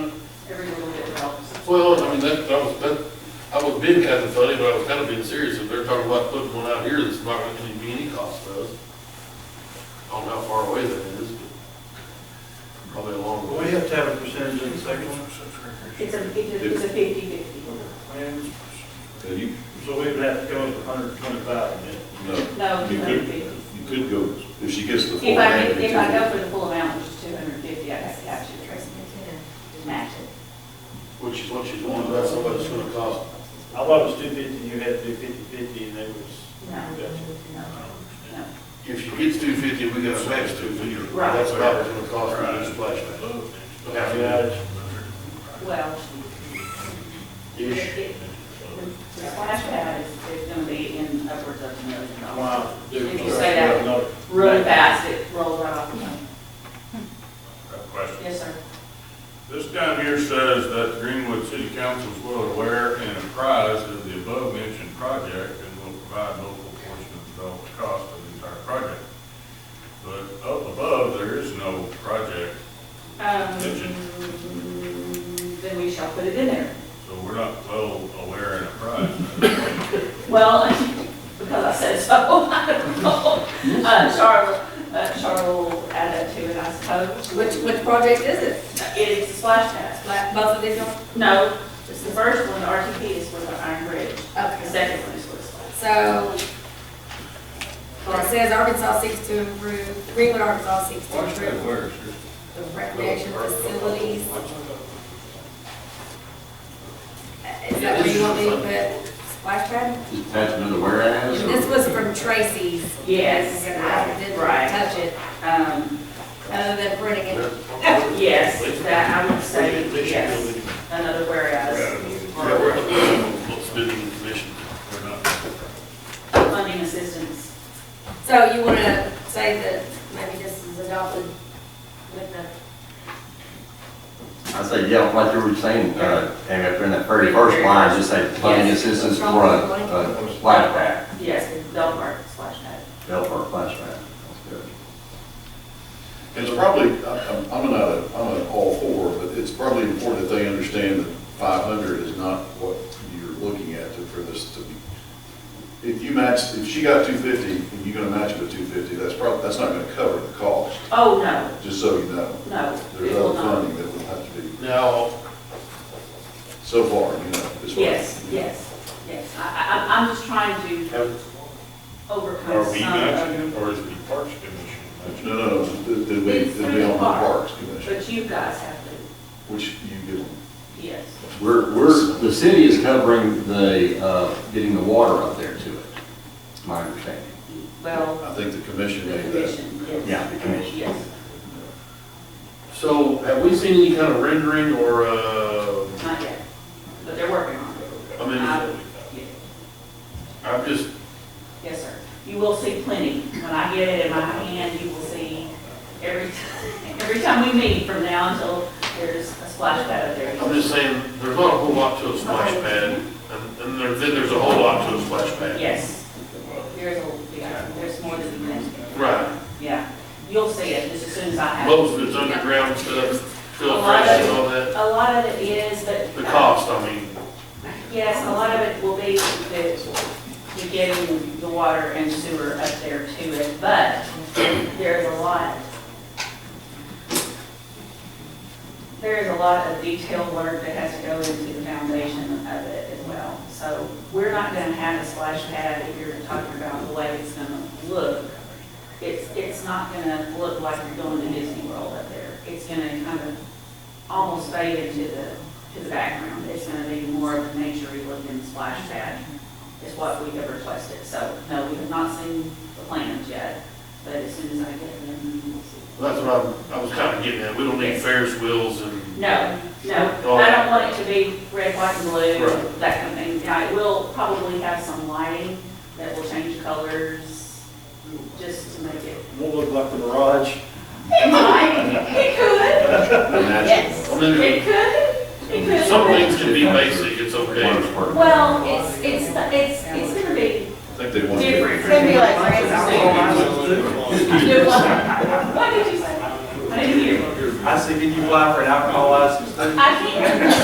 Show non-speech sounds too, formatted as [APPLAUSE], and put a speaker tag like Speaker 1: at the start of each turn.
Speaker 1: I mean, that, that was, that, I was being kind of funny, but I was kind of being serious, if they're talking about putting one out here, that's not gonna be any cost to us. I don't know how far away that is, but probably a long
Speaker 2: Well, we
Speaker 1: way.
Speaker 2: have to have a percentage in the second one,
Speaker 3: It's a, it's a fifty-fifty.
Speaker 2: and
Speaker 4: And you,
Speaker 2: so we would have to go with hundred and twenty-five,
Speaker 4: no,
Speaker 3: No,
Speaker 4: you
Speaker 3: two hundred
Speaker 4: could,
Speaker 3: and fifty.
Speaker 4: you could go, if she gets the full
Speaker 3: If I,
Speaker 4: grant.
Speaker 3: did- if I go for the full amount, which is two hundred and fifty, I have to capture the rest and match it.
Speaker 1: Which is what she's wanting, that's what it's gonna cost.
Speaker 2: I thought it was two fifty, you had to do fifty-fifty, and they was,
Speaker 3: No,
Speaker 2: gotcha.
Speaker 3: no, no.
Speaker 1: If she gets two fifty, we gotta match two fifty.
Speaker 3: Right.
Speaker 1: That's about what it's gonna cost for this splash
Speaker 2: Got
Speaker 1: pad.
Speaker 2: it.
Speaker 3: Well, it,
Speaker 1: Ish.
Speaker 3: it, the splash pad is, is gonna be in upwards of a million dollars.
Speaker 2: Wow.
Speaker 3: If you say that
Speaker 2: No.
Speaker 3: really fast, it rolls right off. the tongue.
Speaker 5: Question.
Speaker 3: Yes, sir.
Speaker 5: This down here says that Greenwood City Council is well aware and apprised of the above mentioned project and will provide local portion of the total cost of the entire project. But up above, there is no project,
Speaker 3: Um, then we shall put it in there.
Speaker 5: so we're not well aware and apprised.
Speaker 3: Well, [LAUGHS] because I said so, [LAUGHS] I don't know. Uh, Charlotte, uh, Charlotte will add that to it, I suppose. Uh,
Speaker 6: Which, which project is it?
Speaker 3: It is a splash pad.
Speaker 6: Like both of these are?
Speaker 3: No, it's the first one, the RTP is for the Iron Bridge. The
Speaker 6: Okay.
Speaker 3: second one is for the splash.
Speaker 6: So it
Speaker 3: Or-
Speaker 6: says Arkansas seeks to improve, Greenwood, Arkansas seeks to
Speaker 5: What's that
Speaker 6: improve
Speaker 5: word?
Speaker 6: the recreation facilities. Is that where you want me to put splash pad?
Speaker 4: Attachment of whereas,
Speaker 6: This was from Tracy's.
Speaker 3: Yes.
Speaker 6: I didn't
Speaker 3: Right.
Speaker 6: touch it,
Speaker 3: Um,
Speaker 6: other than printing it. [LAUGHS]
Speaker 3: yes, that, I would say, yes, another whereas.
Speaker 1: Yeah, we're, we're spending the commission.
Speaker 5: We're not.
Speaker 3: Funding assistance.
Speaker 6: So you want to say that maybe this is adopted with the
Speaker 7: I say, yeah, like you were saying, uh, and if in that very first line, just say funding assistance for a, a splash pad,
Speaker 3: Yes, Delmark splash pad.
Speaker 7: bill for a splash pad. That's good.
Speaker 4: it's probably, I'm, I'm not, a- I'm an all for, but it's probably important that they understand that five hundred is not what you're looking at to- for this to be. If you match, if she got two fifty, and you're gonna match it with two fifty, that's probably, that's not gonna cover the cost,
Speaker 3: Oh, no,
Speaker 4: just so you know.
Speaker 3: no, it
Speaker 4: There's
Speaker 3: will
Speaker 4: other
Speaker 3: not.
Speaker 4: funding that will have to be,
Speaker 1: Now,
Speaker 4: so far, you know, as far.
Speaker 3: Yes, yes, yes. I, I, I'm- I'm just trying to overcome
Speaker 5: Are we
Speaker 3: some of
Speaker 5: mentioning, or is the Parks Commission mentioning?
Speaker 4: No, no, no, it'd it'd be,
Speaker 3: It's
Speaker 4: it'd be on the
Speaker 3: through the park.
Speaker 4: Parks Commission,
Speaker 3: But you guys have to,
Speaker 4: which you give them.
Speaker 3: yes.
Speaker 7: We're, we're, the city is covering the, uh, getting the water up there to it, is my understanding.
Speaker 3: Well,
Speaker 4: I think the
Speaker 3: the
Speaker 4: commission made that.
Speaker 3: commission, yes.
Speaker 7: Yeah, the commission.
Speaker 3: Yes,
Speaker 1: So have we seen any kind of rendering or, uh,
Speaker 3: not yet, but they're working on it.
Speaker 1: I mean,
Speaker 3: Yeah.
Speaker 1: I'm just,
Speaker 3: Yes, sir. You will see plenty. When I get it in my hand, you will see every, [LAUGHS] every time we meet from now until there's a splash pad up there.
Speaker 1: I'm just saying, there's not a whole lot to a splash pad, and, and there, then there's a whole lot to a splash pad.
Speaker 3: Yes. There's a, yeah, there's more than that.
Speaker 1: Right,
Speaker 3: Yeah. You'll see it just as soon as I have it.
Speaker 1: most of it's underground stuff,
Speaker 3: A lot
Speaker 1: filtration and
Speaker 3: of
Speaker 1: all that,
Speaker 3: A lot of it is, but.
Speaker 1: the cost, I mean,
Speaker 3: Yes, a lot of it will be the, the getting the water and sewer up there to it, but there's a lot. There is a lot of detailed work that has to go into the foundation of it as well. So we're not gonna have a splash pad if you're talking about the way it's gonna look. It's, it's not gonna look like you're going to Disney World up there. It's gonna kind of almost fade into the, to the background. It's gonna be more of a naturey looking splash pad is what we have requested. So, no, we have not seen the plans yet, but as soon as I get them, we'll see.
Speaker 1: that's what I'm, I was kinda getting at, we don't need Ferris wheels and,
Speaker 3: No, no, I don't want it to be red, white, and blue,
Speaker 1: Right.
Speaker 3: that kind of thing. Now, it will probably have some lighting that will change colors, just to make it.
Speaker 2: Won't look like the garage.
Speaker 3: It might, it could, yes,
Speaker 1: I mean,
Speaker 3: it could, it could.
Speaker 1: some things can be basic, it's
Speaker 7: Water's
Speaker 1: okay.
Speaker 7: part of it.
Speaker 3: Well, it's, it's, it's, it's gonna be
Speaker 4: I think they wanted.
Speaker 3: different.
Speaker 6: gonna be like
Speaker 3: Do what? What did you say? I didn't hear.
Speaker 2: I said, can you apply for an alcohol license?
Speaker 3: I can't.